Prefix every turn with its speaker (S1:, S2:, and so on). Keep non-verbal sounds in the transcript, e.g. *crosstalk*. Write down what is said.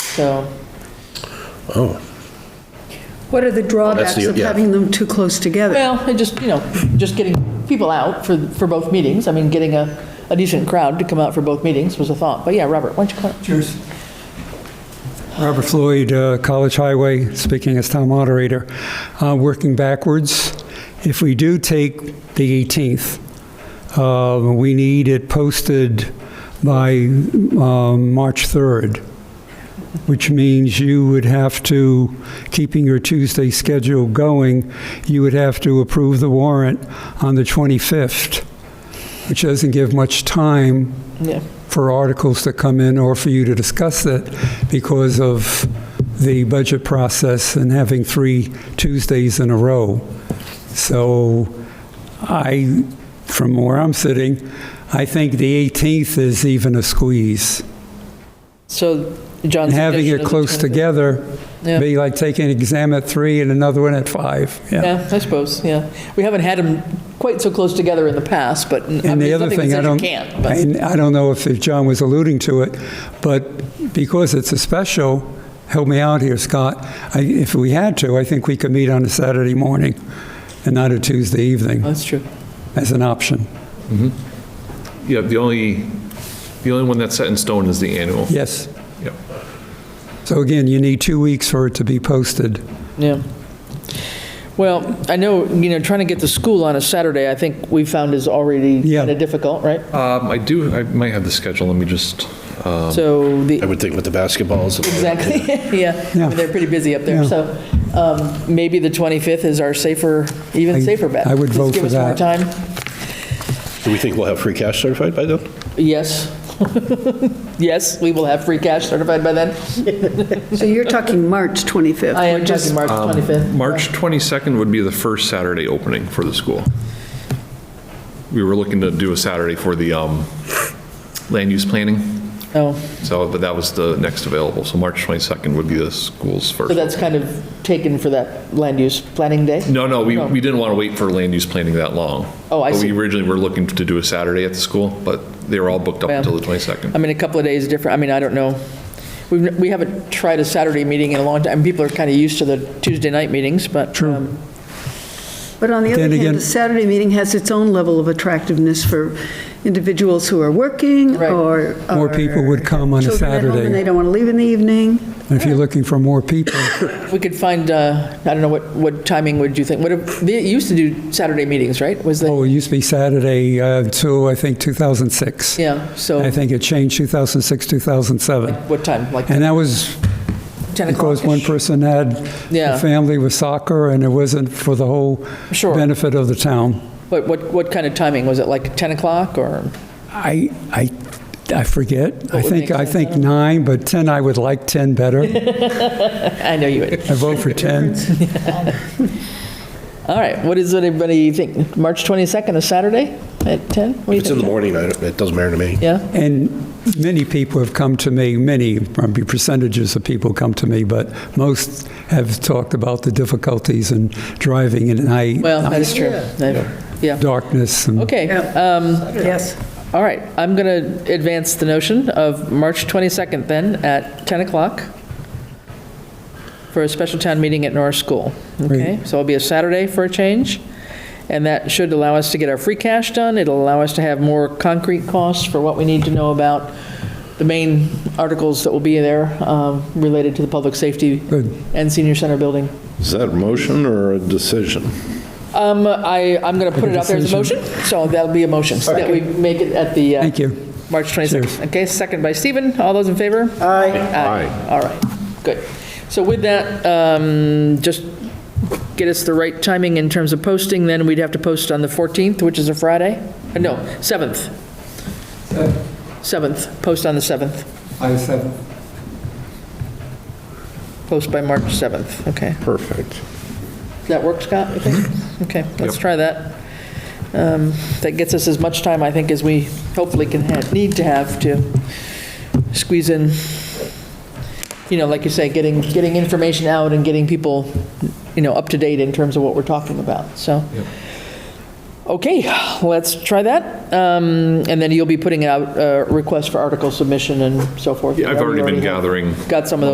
S1: so.
S2: Oh,
S3: What are the drawbacks
S2: the-
S3: of
S2: yeah.
S3: having them too close together?
S1: Well, it just, you know, just getting people out for, for both meetings. I mean, getting a, a decent crowd to come out for both meetings was a thought. But yeah, Robert, why don't you come?
S4: Cheers. Robert Floyd, uh, College Highway, speaking as town moderator. Uh, Working backwards, if we do take the 18th, uh, we need it posted by um, March 3rd, which means you would have to, keeping your Tuesday schedule going, you would have to approve the warrant on the 25th, which doesn't give much time
S1: Yeah,
S4: for articles to come in or for you to discuss it because of the budget process and having three Tuesdays in a row. So I, from where I'm sitting, I think the 18th is even a squeeze.
S1: so John's.
S4: And having
S1: suggestion
S4: it
S1: is
S4: close
S1: the 25th.
S4: together,
S1: Yeah.
S4: be like taking an exam at three and another one at five.
S1: Yeah, I suppose, yeah. We haven't had them quite so close together in the past, but I mean,
S4: And the
S1: there's
S4: other
S1: nothing that
S4: thing,
S1: says
S4: I
S1: you
S4: don't,
S1: can't. but-
S4: and I don't know if if John was alluding to it, but because it's a special, help me out here, Scott, I- if we had to, I think we could meet on a Saturday morning and not a Tuesday evening
S1: That's true.
S4: as an option.
S5: Yeah, the only, the only one that's set in stone is the annual.
S4: Yes.
S5: Yep.
S4: So again, you need two weeks for it to be posted.
S1: Yeah. Well, I know, you know, trying to get to school on a Saturday, I think we found is already
S4: Yeah.
S1: kind of difficult, right?
S5: Um, I do, I might have the schedule, let me just,
S1: So the,
S2: I would think with the basketballs.
S1: exactly, *laughs* yeah, I
S4: Yeah.
S1: mean, they're pretty busy up there.
S4: Yeah.
S1: So um, maybe the 25th is our safer,
S4: I-
S1: even safer bet.
S4: I would
S1: Just
S4: vote for that.
S1: Give us more time.
S2: Do we think we'll have free cash certified by then?
S1: Yes. *laughs* Yes, we will have free cash certified by then.
S3: So you're talking March 25th.
S1: I am
S3: We're just-
S1: talking March 25th.
S5: um, March 22nd would be the first Saturday opening for the school. We were looking to do a Saturday for the um, land use planning,
S1: Oh.
S5: so, but that was the next available, so March 22nd would be the school's
S1: So
S5: first.
S1: that's kind of taken for that land use planning day?
S5: No, no, we, we didn't want to wait for land use planning that long.
S1: Oh, I
S5: But
S1: see.
S5: We originally were looking to do a Saturday at the school, but they were all booked up
S1: Well,
S5: until the 22nd.
S1: I mean, a couple of days different, I mean, I don't know. We've- We haven't tried a Saturday meeting in a long time. People are kind of used to the Tuesday night meetings, but.
S4: True.
S1: um,
S3: But on the other
S4: Then
S3: hand,
S4: again-
S3: the Saturday meeting has its own level of attractiveness for individuals who are working
S1: Right.
S3: or.
S4: More
S3: or
S4: people would come on a
S3: children at home
S4: Saturday.
S3: And they don't want to leave in the evening.
S4: And if you're looking for more people,
S1: We could find, uh, I don't know, what, what timing would you think? What, if- they used to do Saturday meetings, right? Was the,
S4: oh, it used to be Saturday uh, till, I think, 2006.
S1: yeah,
S4: I
S1: so
S4: think it changed 2006, 2007.
S1: what time? Like
S4: And that was
S1: 10 o'clock?
S4: Because one person had
S1: Yeah.
S4: a family with soccer, and it wasn't for the whole
S1: Sure.
S4: benefit of the town.
S1: What, what, what kind of timing? Was it like 10 o'clock or? *laughs*
S4: I, I, I forget. I
S1: would
S4: think,
S1: make
S4: I
S1: sense, I
S4: think
S1: don't
S4: nine, but 10, I would like
S1: *laughs*
S4: 10 better.
S1: I know you
S4: *laughs*
S1: would.
S4: I vote for 10.
S1: All right, what is, what everybody think? March 22nd, a Saturday at 10? What do you
S2: It's in the
S1: think?
S2: morning, I don't- it doesn't matter to me.
S1: Yeah,
S4: And many people have come to me, many, probably percentages of people come to me, but most have talked about the difficulties in driving in night,
S1: well, that's true. Yeah,
S4: darkness. and-
S1: okay. um,
S3: Yes.
S1: All right, I'm going to advance the notion of March 22nd then at 10 o'clock for a special town meeting at Norris School. Okay, so it'll be a Saturday for a change, and that should allow us to get our free cash done. It'll allow us to have more concrete costs for what we need to know about the main articles that will be there um, related to the public safety
S4: Good.
S1: and senior center building.
S2: Is that a motion or a decision?
S1: Um, I, I'm going to put it out there as a motion, so that'll be a motion, so that we make it at the. uh,
S4: Thank you.
S1: March 26th.
S4: Cheers.
S1: Okay, second by Stephen. All those in favor? Aye. Aye. All right, good. So with that, um, just get us the right timing in terms of posting, then we'd have to post on the 14th, which is a Friday? Uh, No, 7th. 7th, post on the 7th,
S4: I said.
S1: post by March 7th, okay.
S2: Perfect.
S1: Does that work, Scott? you
S5: Mm-hmm.
S1: think? Okay, let's try that. Um, That gets us as much time, I think, as we hopefully can, ha- need to have to squeeze in, you know, like you say, getting, getting information out and getting people, you know, up to date in terms of what we're talking about, so. Okay, let's try that. Um, And then you'll be putting out a request for article submission and so forth.
S5: Yeah, I've already been
S1: You
S5: gathering
S1: Got some of those